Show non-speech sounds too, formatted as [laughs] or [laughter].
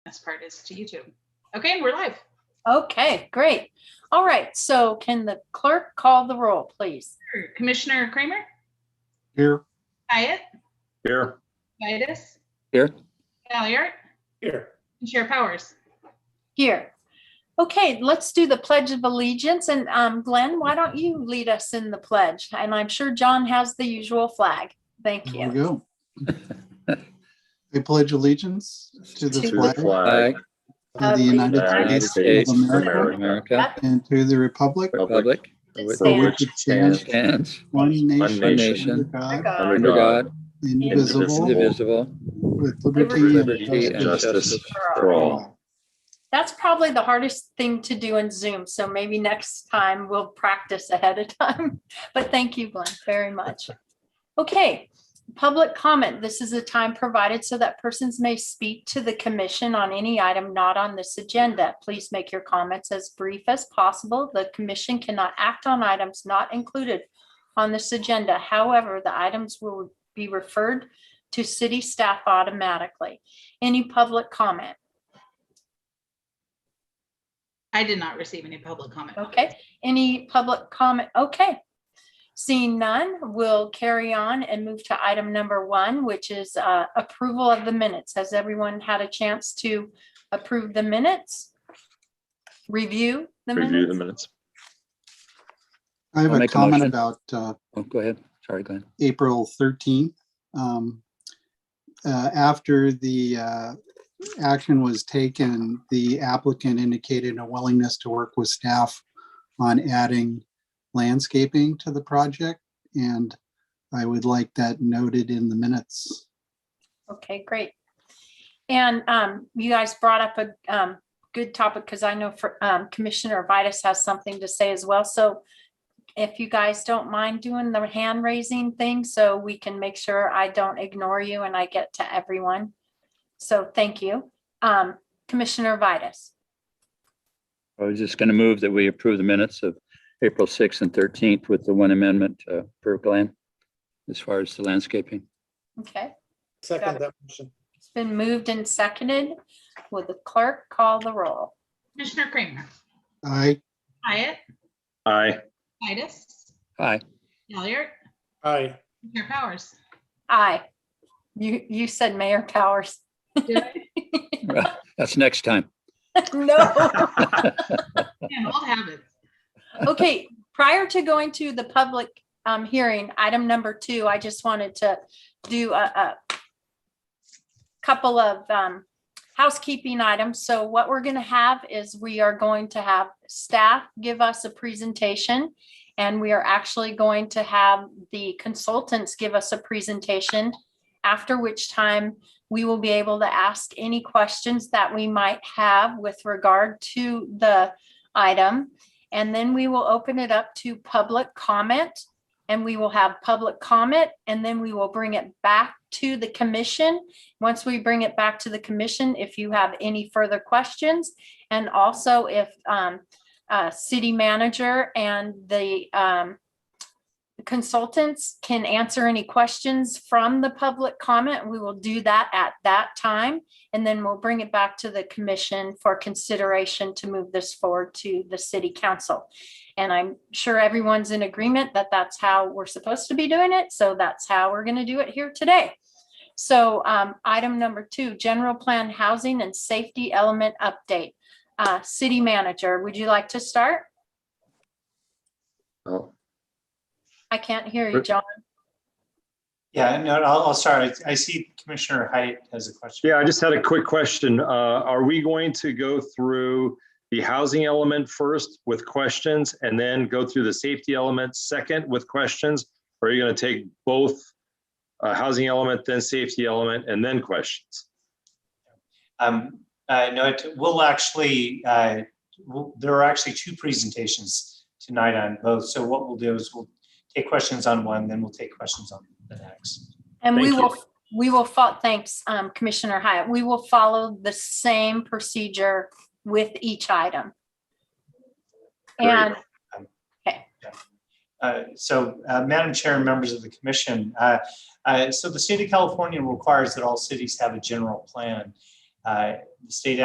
best part is to YouTube. Okay, we're live. Okay, great. All right, so can the clerk call the roll, please? Commissioner Kramer, Here. Hyatt, Here. Vitus. Here. Galliard, Here. and Chair Powers. Here. Okay, let's do the Pledge of Allegiance. And um, Glenn, why don't you lead us in the pledge? And I'm sure John has the usual flag. Thank There we you. go. I pledge allegiance to the To To the flag flag of the United of the United States of States of America America, America, and to the republic Republic, That for stands which it stands, stands one nation, nation, under God, under under under God, God, indivisible, indivisible, indivisible, with liberty, liberty liberty, and and justice justice God. for all. That's probably the hardest thing to do in Zoom, so maybe next time we'll practice ahead of time. [laughs] But thank you, Glenn, very much. Okay, public comment. This is a time provided so that persons may speak to the commission on any item not on this agenda. Please make your comments as brief as possible. The commission cannot act on items not included on this agenda. However, the items will be referred to city staff automatically. Any public comment? I did not receive any public comment. Okay, any public comment? Okay. Seeing none, we'll carry on and move to item number one, which is uh, approval of the minutes. Has everyone had a chance to approve the minutes? Review the Review the minutes? minutes. I have I'll a make a comment motion. about uh, Oh, go ahead. Sorry, Glenn. April 13th. Um, uh, After the uh, action was taken, the applicant indicated a willingness to work with staff on adding landscaping to the project, and I would like that noted in the minutes. Okay, great. And um, you guys brought up a um, good topic because I know for um, Commissioner Vitus has something to say as well. So if you guys don't mind doing the hand raising thing, so we can make sure I don't ignore you and I get to everyone. So thank you. Um, Commissioner Vitus. I was just going to move that we approve the minutes of April 6th and 13th with the one amendment uh, per Glenn as far as the landscaping. Okay, Got Second it. that motion. it's been moved and seconded. Will the clerk call the roll? Commissioner Kramer, I Hyatt, Aye. Vitus, Aye. Galliard, Aye, and Chair Powers. Aye. You, you said Mayor Powers. [laughs] Did I? Well, That's next time. No. Man, Old habits. Okay, prior to going to the public um, hearing, item number two, I just wanted to do a, a couple of um, housekeeping items. So what we're going to have is we are going to have staff give us a presentation. And we are actually going to have the consultants give us a presentation, after which time we will be able to ask any questions that we might have with regard to the item. And then we will open it up to public comment. And we will have public comment and then we will bring it back to the commission. Once we bring it back to the commission, if you have any further questions. And also if um, uh, city manager and the um, consultants can answer any questions from the public comment, we will do that at that time. And then we'll bring it back to the commission for consideration to move this forward to the city council. And I'm sure everyone's in agreement that that's how we're supposed to be doing it. So that's how we're going to do it here today. So um, item number two, general plan housing and safety element update. Uh, City manager, would you like to start? Oh, I can't hear you, Sure. John. Yeah, no, I'll, I'll start. I I see Commissioner Height has a question. Yeah, I just had a quick question. Uh, Are we going to go through the housing element first with questions and then go through the safety element second with questions? Or are you going to take both uh, housing element, then safety element, and then questions? Um, uh, no, it will actually, uh, we'll- there are actually two presentations tonight on both. So what we'll do is we'll take questions on one, then we'll take questions on the next. And we Thank you. will, we will, fol- thanks, um, Commissioner Hyatt. We will follow the same procedure with each item. Great. And Uh, So, uh, Madam Chair and members of the commission, uh, uh, so the state of California requires that all cities have a general plan. Uh, The state